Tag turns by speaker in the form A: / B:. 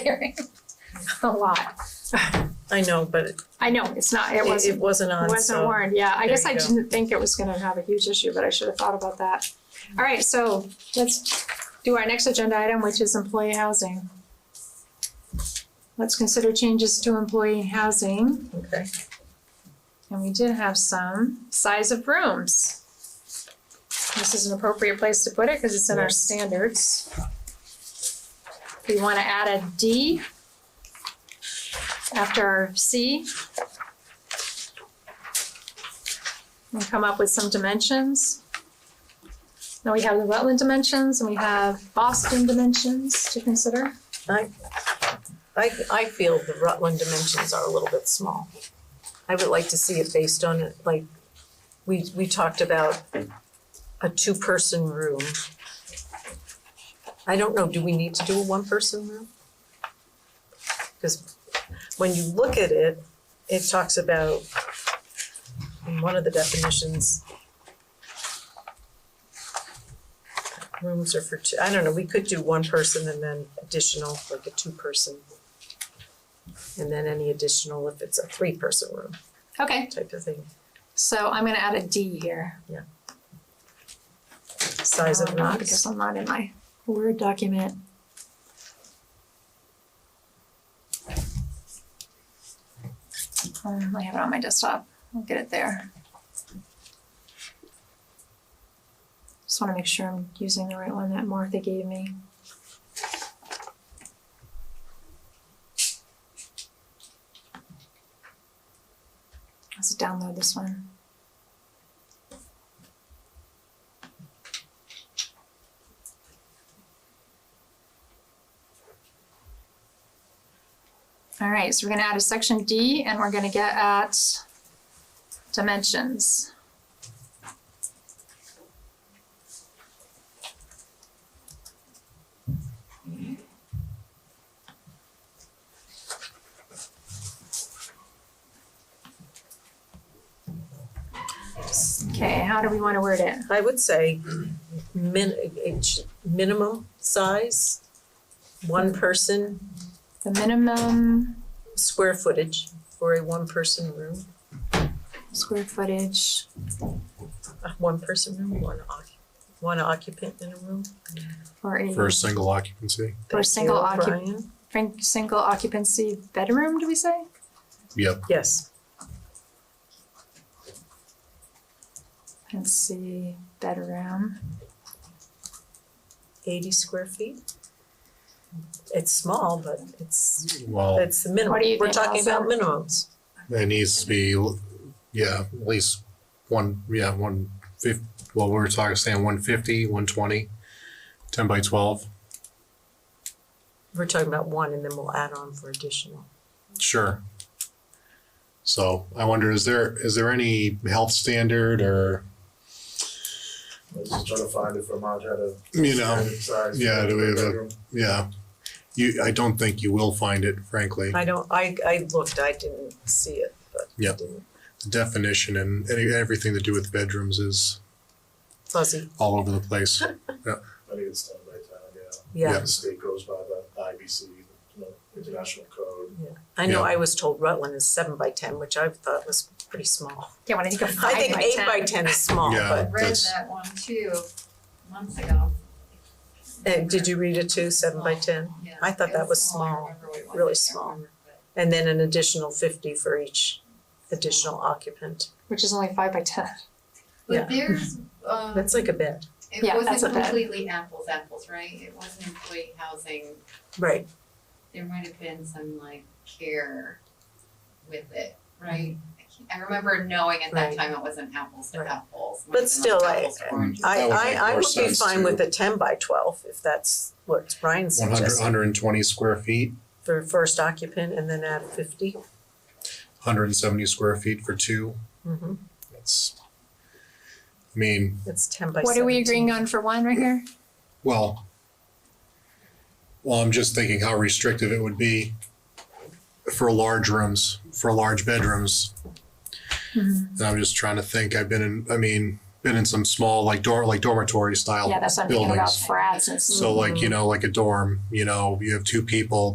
A: hearing. A lot.
B: I know, but it,
A: I know, it's not, it
B: it
A: wasn't,
B: wasn't
A: it
B: on,
A: wasn't
B: so.
A: warned, yeah. I guess
B: there
A: I
B: you go.
A: didn't think it was gonna have a huge issue, but I should have thought about that. All right, so let's do our next agenda item, which is employee housing. Let's consider changes to employee housing,
B: Okay.
A: and we did have some. Size of rooms. This is an appropriate place to put it, cause it's in our
B: Yes.
A: standards. We wanna add a D after our C. And come up with some dimensions. Now we have the wetland dimensions and we have Boston dimensions to consider.
B: I, I feel the Rutland dimensions are a little bit small. I would like to see it based on, like, we, we talked about a two-person room. I don't know, do we need to do a one-person room? Because when you look at it, it talks about, in one of the definitions, rooms are for two, I don't know, we could do one person and then additional, like a two-person. And then any additional if it's a three-person room
A: Okay.
B: type of thing,
A: So I'm gonna add a D here.
B: size of
A: Um, not Because
B: rooms.
A: I'm not in my Word document. Um, I have it on my desktop, I'll get it there. Just wanna make sure I'm using the right one that Martha gave me. Let's download this one. All right, so we're gonna add a section D and we're gonna get at dimensions. Okay, how do we wanna word it?
B: I would say min, it should- minimum size, one person,
A: The minimum
B: square footage for a one-person room,
A: square footage,
B: a one-person room, one occup, one occupant in a room.
A: for a,
C: for a single occupancy.
A: For a
B: Thank
A: single
B: you,
A: occup-
B: Brian.
A: frank- single occupancy bedroom, do we say?
C: Yep.
B: Yes,
A: Occupancy bedroom.
B: eighty square feet. It's small, but it's,
C: Well,
B: it's the
A: What do
B: minimum,
A: you
B: we're
A: think,
B: talking about minimums.
A: Allison?
C: it needs to be, yeah, at least one, yeah, one fif, well, we were talking, saying one fifty, one twenty, ten by twelve,
B: We're talking about one and then we'll add on for additional.
C: sure. So I wonder, is there, is there any health standard or,
D: I was just trying to find it from Mount Vernon.
C: you know,
D: Standard size
C: yeah, do we have a-
D: bedroom.
C: yeah. You, I don't think you will find it, frankly.
B: I don't, I, I looked, I didn't see it, but I
C: Yep.
B: didn't.
C: The definition and any, everything to do with bedrooms is
B: Fuzzy,
C: all over the place.
D: I think it's town by town, yeah.
B: yeah.
C: Yeah.
D: The state goes by the IBC, you know, international code.
B: I know
C: Yeah.
B: I was told Rutland is seven by ten, which I thought was pretty small.
A: Yeah, when I think of
B: I
A: five by ten.
B: think eight by ten is small,
C: Yeah.
B: but,
E: read
C: That's-
E: that one too months ago.
B: and Eh, did you read it too, seven by ten?
E: Yeah,
B: I thought
E: it
B: that was
E: I
B: small,
E: remember we went
B: really
E: there,
B: small.
E: I remember, but
B: And then an additional fifty for each additional occupant.
A: Which is only five by ten.
B: Yeah.
E: But there's, um,
B: That's like a bed.
A: Yeah,
E: it
A: that's a
E: wasn't
A: bed.
E: completely apples, apples, right? It wasn't employee housing,
B: Right.
E: there might have been some like care with it, right? I can't- I remember knowing at
B: Mm-hmm. Right.
E: that time it wasn't apples to
B: Right.
E: apples, it
B: But
E: might have been like
B: still, I-
E: apples to oranges.
B: I,
C: That would make
B: I, I
C: more
B: would be
C: sense
B: fine
C: too.
B: with a ten by twelve if that's what Brian
C: One hundred,
B: suggested
C: hundred and twenty square feet,
B: for first occupant and then add fifty.
C: hundred and seventy square feet for two.
B: Mm-hmm.
C: It's, I mean,
B: It's ten by
A: What are we
B: 17.
A: agreeing on for one right here?
C: well, well, I'm just thinking how restrictive it would be for large rooms, for large bedrooms.
A: Mm-hmm.
C: And I'm just trying to think, I've been in, I mean, been in some small, like dorm, like dormitory style
A: Yeah,
C: buildings.
A: that's what I'm thinking about, frats and.
C: So like, you know, like a dorm, you know, you have two people,